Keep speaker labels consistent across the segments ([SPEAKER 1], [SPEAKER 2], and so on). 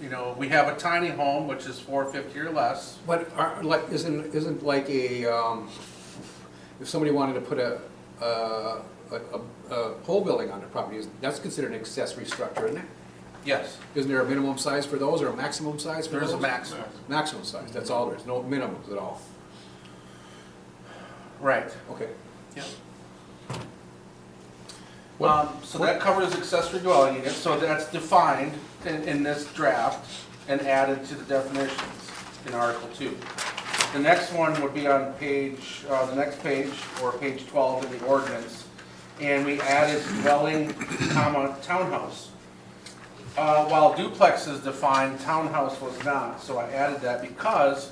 [SPEAKER 1] you know, we have a tiny home, which is four fifty or less.
[SPEAKER 2] But are, like, isn't, isn't like a, um, if somebody wanted to put a, a, a, a pole building on their property, is- that's considered an accessory structure, isn't it?
[SPEAKER 1] Yes,
[SPEAKER 2] Isn't there a minimum size for those or a maximum size for
[SPEAKER 1] there
[SPEAKER 2] those?
[SPEAKER 1] is a maximum,
[SPEAKER 2] Maximum size, that's all there is, no minimums at all.
[SPEAKER 1] right.
[SPEAKER 2] Okay. What-
[SPEAKER 1] Um, so that covers accessory dwelling unit, so that's defined in, in this draft and added to the definitions in Article two. The next one would be on page, uh, the next page, or page twelve in the ordinance, and we added dwelling, comma, townhouse. Uh, while duplex is defined, townhouse was not, so I added that because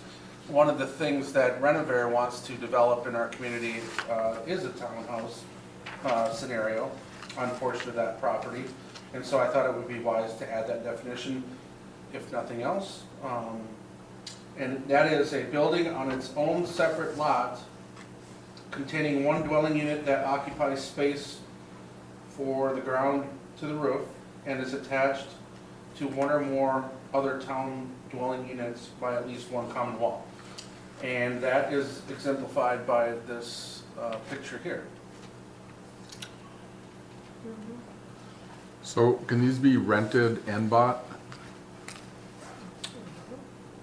[SPEAKER 1] one of the things that Renovare wants to develop in our community, uh, is a townhouse, uh, scenario on portion of that property. And so I thought it would be wise to add that definition, if nothing else. Um, And that is a building on its own separate lot containing one dwelling unit that occupies space for the ground to the roof and is attached to one or more other town dwelling units by at least one common wall. And that is exemplified by this uh, picture here.
[SPEAKER 3] So can these be rented and bought?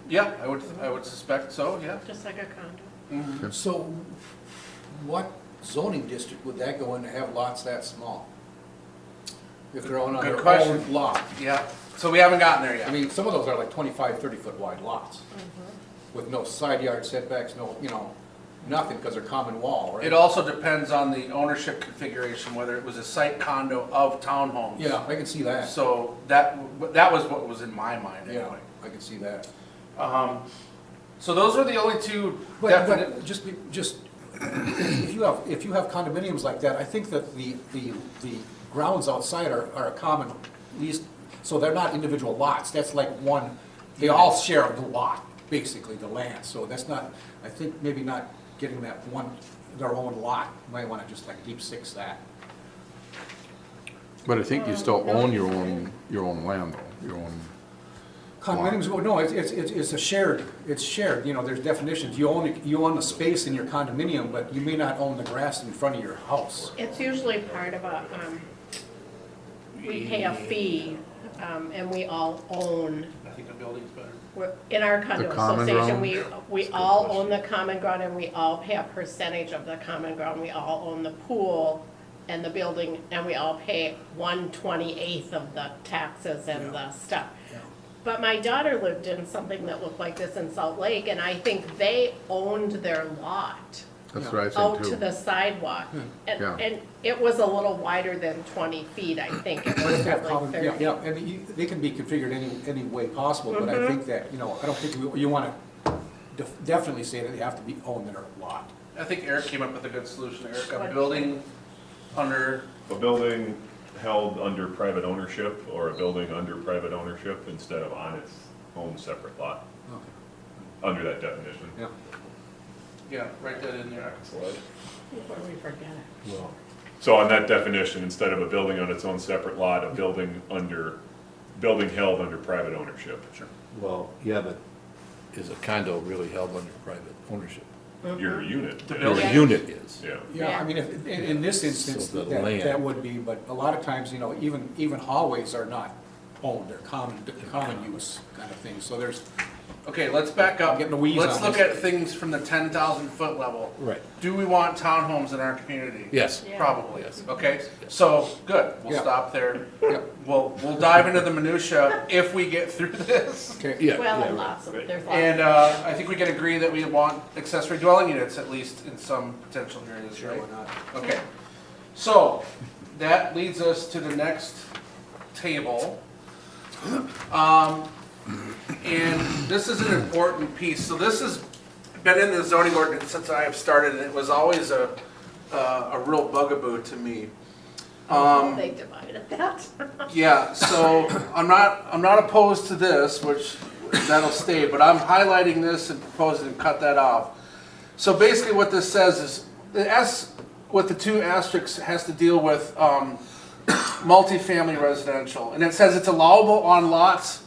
[SPEAKER 1] Yeah, I would, I would suspect so, yeah.
[SPEAKER 4] Just like a condo.
[SPEAKER 1] Um,
[SPEAKER 2] So what zoning district would that go in to have lots that small? If they're on
[SPEAKER 1] Good
[SPEAKER 2] their
[SPEAKER 1] question.
[SPEAKER 2] own lot?
[SPEAKER 1] Yeah, so we haven't gotten there
[SPEAKER 2] I
[SPEAKER 1] yet.
[SPEAKER 2] mean, some of those are like 25, 30-foot wide lots with no side yard setbacks, no, you know, nothing because they're common wall, right?
[SPEAKER 1] It also depends on the ownership configuration, whether it was a site condo of townhomes.
[SPEAKER 2] Yeah, I can see that.
[SPEAKER 1] So that, that was what was in my mind
[SPEAKER 2] Yeah,
[SPEAKER 1] anyway.
[SPEAKER 2] I can see that.
[SPEAKER 1] Um, So those were the only two
[SPEAKER 2] But,
[SPEAKER 1] definite,
[SPEAKER 2] but just, be- just, if you have, if you have condominiums like that, I think that the, the, the grounds outside are, are a common, least, so they're not individual lots, that's like one, they all share the lot, basically, the land, so that's not, I think maybe not getting that one, their own lot, You might wanna just like deep six that.
[SPEAKER 3] But I think you still own your own, your own land though, your own,
[SPEAKER 2] Condominiums, well, no, it's, it's, it's it's a shared, it's shared, you know, there's definitions, you own, it- you own the space in your condominium, but you may not own the grass in front of your house.
[SPEAKER 4] It's usually part of a, um, we pay a fee, um, and we all own,
[SPEAKER 1] I think the building's better.
[SPEAKER 4] we're, in our condo
[SPEAKER 3] The common
[SPEAKER 4] association,
[SPEAKER 3] ground?
[SPEAKER 4] we, we all own the common ground and we all pay a percentage of the common ground. We all own the pool and the building, and we all pay one twenty-eighth of the taxes and the stuff. But my daughter lived in something that looked like this in Salt Lake, and I think they owned their lot.
[SPEAKER 3] that's what I
[SPEAKER 4] out
[SPEAKER 3] think
[SPEAKER 4] Oh, to the
[SPEAKER 3] too.
[SPEAKER 4] sidewalk. And,
[SPEAKER 3] Yeah.
[SPEAKER 4] and it was a little wider than twenty feet, I think. It was
[SPEAKER 2] Yeah,
[SPEAKER 4] probably
[SPEAKER 2] common- yeah,
[SPEAKER 4] thirty.
[SPEAKER 2] yeah, I mean, you- they can be configured any, any way possible, but I think that, you know, I don't think you, you wanna def- definitely say that they have to be owned their lot.
[SPEAKER 1] I think Eric came up with a good solution, Eric, a
[SPEAKER 4] What?
[SPEAKER 1] building under,
[SPEAKER 5] A building held under private ownership or a building under private ownership instead of on its own separate lot, under that definition.
[SPEAKER 2] Yeah.
[SPEAKER 1] yeah, write that in there.
[SPEAKER 5] Back slide.
[SPEAKER 4] Before we forget it.
[SPEAKER 5] So on that definition, instead of a building on its own separate lot, a building under, building held under private ownership.
[SPEAKER 6] Well, yeah, but is a condo really held under private ownership?
[SPEAKER 5] Your unit.
[SPEAKER 1] The
[SPEAKER 5] is.
[SPEAKER 1] building.
[SPEAKER 6] Your
[SPEAKER 4] Yeah.
[SPEAKER 6] unit is.
[SPEAKER 5] Yeah.
[SPEAKER 2] Yeah, I mean, if, in, in this instance,
[SPEAKER 6] So the
[SPEAKER 2] that, that
[SPEAKER 6] land.
[SPEAKER 2] would be, but a lot of times, you know, even, even hallways are not owned, they're common, common use kind of thing, so there's,
[SPEAKER 1] Okay, let's back up.
[SPEAKER 2] I'm getting the wheeze
[SPEAKER 1] Let's
[SPEAKER 2] on
[SPEAKER 1] look
[SPEAKER 2] this.
[SPEAKER 1] at things from the ten thousand foot level.
[SPEAKER 6] Right.
[SPEAKER 1] Do we want townhomes in our community?
[SPEAKER 6] Yes.
[SPEAKER 4] Yeah.
[SPEAKER 1] Probably,
[SPEAKER 6] Yes.
[SPEAKER 1] okay? So, good, we'll
[SPEAKER 2] Yeah.
[SPEAKER 1] stop there.
[SPEAKER 2] yeah,
[SPEAKER 1] We'll, we'll dive into the minutia if we get through this.
[SPEAKER 2] okay.
[SPEAKER 6] Yeah,
[SPEAKER 4] Well,
[SPEAKER 6] yeah,
[SPEAKER 4] and
[SPEAKER 6] right.
[SPEAKER 4] lots of, there's lots.
[SPEAKER 1] And, uh, I think we can agree that we want accessory dwelling units at least in some potential areas,
[SPEAKER 2] Sure,
[SPEAKER 1] right?
[SPEAKER 2] why not?
[SPEAKER 1] Okay, so that leads us to the next table. Um, and this is an important piece. So this has been in the zoning ordinance since I have started, and it was always a, a, a real bugaboo to me. Um,
[SPEAKER 4] They divided that.
[SPEAKER 1] yeah, so I'm not, I'm not opposed to this, which that'll stay, but I'm highlighting this and proposing to cut that off. So basically what this says is, the S, what the two asterisks has to deal with, um, multifamily residential. And it says it's allowable on lots